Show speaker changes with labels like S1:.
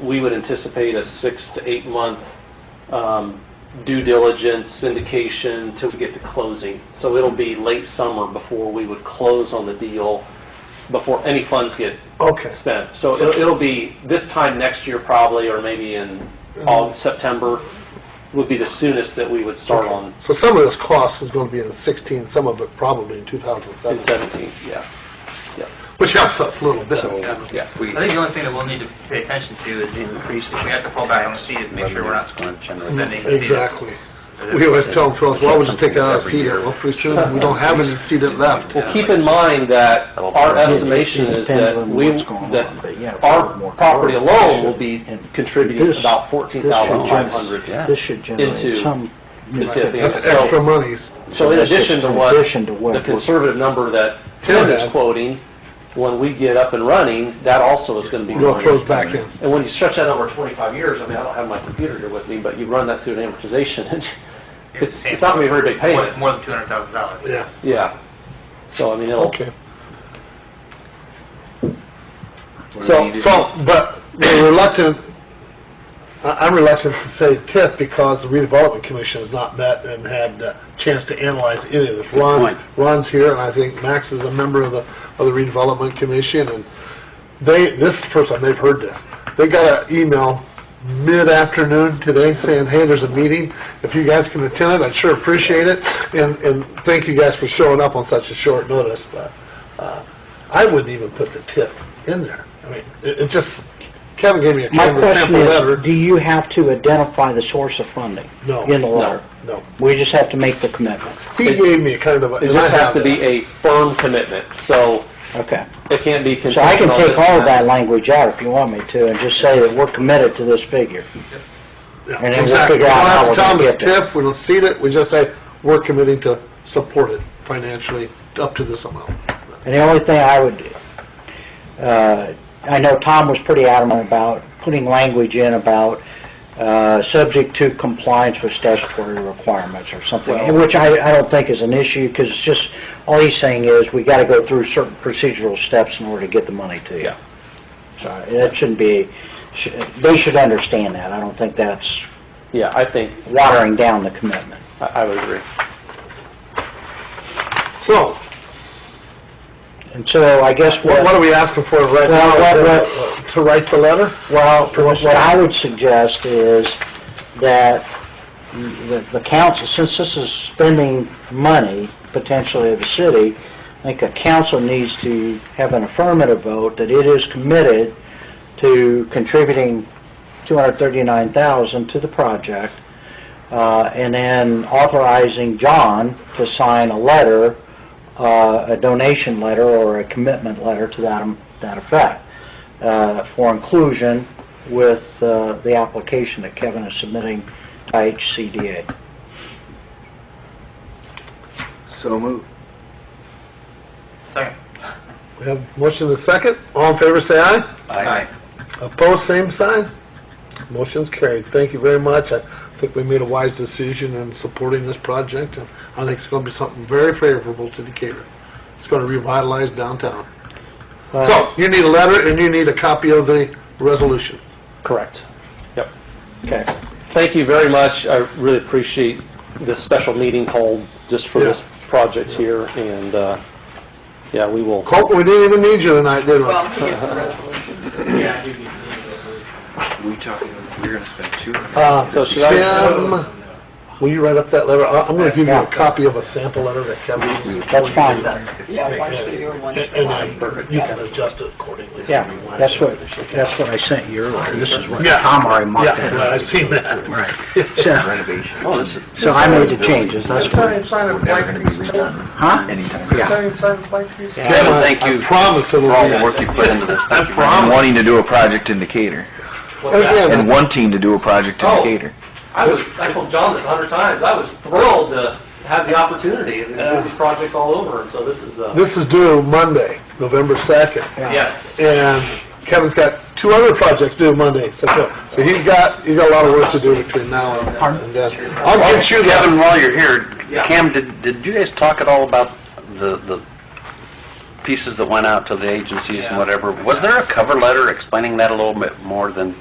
S1: we would anticipate a six to eight month um, due diligence, syndication, till we get to closing. So it'll be late summer before we would close on the deal, before any funds get
S2: Okay.
S1: spent. So it'll, it'll be this time next year probably, or maybe in all, September would be the soonest that we would start on
S2: So some of this cost is gonna be in sixteen, some of it probably in two thousand
S1: in
S2: seven,
S1: 17, yeah.
S2: which helps us a little bit.
S1: Yeah.
S3: I think the only thing that we'll need to pay attention to is increase, if we have to pull back on C, is make sure we're not spending.
S2: Exactly. We always tell them, well, why would you take that out of CDIP? Well, pretty soon, we don't have any CDIP left.
S1: Well, keep in mind that our estimation is that we, that our property alone will be contributing about $14,500
S4: This should
S1: into
S4: generate some.
S1: the TIF.
S2: That's extra monies.
S1: So in
S4: That's just
S1: addition to
S4: in
S1: what,
S4: addition to what
S1: the
S4: we're-
S1: conservative number that Tim is quoting, when we get up and running, that also is going to be
S2: Well, it
S1: going
S2: flows back in.
S1: And when you stretch that over 25 years, I mean, I don't have my computer here with me, but you run that through an amortization, it's, it's not going to be a very big
S3: More
S1: payment.
S3: more than two hundred thousand dollars.
S2: Yeah,
S1: Yeah. So I mean, it'll,
S2: okay.
S1: so,
S2: So,
S1: so,
S2: so, but we're reluctant, I- I'm reluctant to say TIF because the redevelopment commission has not met and had the chance to analyze any of this. Ron, Ron's here, and I think Max is a member of the, of the redevelopment commission, and they, this is the first time they've heard this. They got an email mid-afternoon today saying, hey, there's a meeting, if you guys can attend it, I'd sure appreciate it, and, and thank you guys for showing up on such a short notice, but, uh, I wouldn't even put the tip in there. I mean, it, it just, Kevin gave me a
S4: My
S2: kind of
S4: question
S2: sample letter.
S4: is, do you have to identify the source of funding?
S2: No.
S4: In the letter?
S2: No, no.
S4: We just have to make the commitment.
S2: He gave me a kind of, a-
S1: it
S2: and I
S1: just has
S2: have
S1: to be
S2: that.
S1: a firm commitment, so
S4: Okay.
S1: it can't be contingent
S4: So I can
S1: on
S4: take
S1: this
S4: all of
S1: and
S4: that language out if you want me to and just say that we're committed to this figure.
S2: Yeah,
S4: and then we'll
S2: exactly.
S4: figure out how
S2: don't
S4: we're gonna
S2: have to
S4: get
S2: tell
S4: there.
S2: them it's TIF, we don't see it, we just say, we're committing to support it financially up to this amount.
S4: And the only thing I would, uh, I know Tom was pretty adamant about putting language in about, uh, subject to compliance with statutory requirements or something, which I, I don't think is an issue, because it's just, all he's saying is, we gotta go through certain procedural steps in order to get the money to you.
S1: Yeah.
S4: So that shouldn't be, sh- they should understand that. I don't think that's
S1: Yeah, I think,
S4: watering down the commitment.
S1: I I would agree.
S2: So,
S4: And so I guess
S2: what
S4: what...
S2: what are we asking for right
S4: Well, what-
S1: uh,
S2: now? To write the letter?
S4: Well, what what I would suggest is that the the council, since this is spending money potentially of the city, I think the council needs to have an affirmative vote that it is committed to contributing 239000 to the project, uh, and then authorizing John to sign a letter, uh, a donation letter or a commitment letter to that that effect uh, for inclusion with uh, the application that Kevin is submitting to HCDA.
S2: So moved.
S3: Second.
S2: We have motion and second, all in favor say aye.
S3: Aye.
S2: Opposed, same sign. Motion's carried. Thank you very much. I think we made a wise decision in supporting this project, and I think it's going to be something very favorable to Decatur. It's going to revitalize downtown. So, you need a letter, and you need a copy of the resolution.
S1: Correct. Yep.
S4: Okay.
S1: Thank you very much. I really appreciate this special meeting called just for this
S2: Yeah.
S1: project here, and, uh, yeah, we will.
S2: Colt, we didn't even need you tonight, did we?
S3: We talking, we're gonna spend two hundred.
S2: Uh,
S1: So should I-
S2: Tim, will you write up that letter? I- I'm going to give you a copy of a sample letter that Kevin...
S4: That's fine.
S2: Yeah, And I- you can adjust it accordingly.
S4: Yeah, that's what, that's what I sent you earlier. This is what
S2: Yeah.
S4: Tom already marked
S2: Yeah, well,
S4: down.
S2: I've seen that.
S4: Right. So,
S1: Oh,
S4: so I made the changes, that's correct. Huh? Yeah.
S2: Kevin, thank you. I promise it'll be...
S5: all the work you put into this. Thank you for Wanting to do a project in Decatur, and
S2: Again,
S5: wanting to do a project in
S1: Oh.
S5: Decator.
S1: I was, I told John this a hundred times, I was thrilled to have the opportunity, and there's these projects all over, so this is, uh,
S2: This is due Monday, November 2nd.
S1: yes.
S2: And Kevin's got two other projects due Monday, so so he's got, he's got a lot of work to do between now and- and then. I'll get you that.
S5: Kevin, while you're here,
S1: Yeah.
S5: Cam, did, did you guys talk at all about the, the pieces that went out to the agencies and whatever? Was there a cover letter explaining that a little bit more than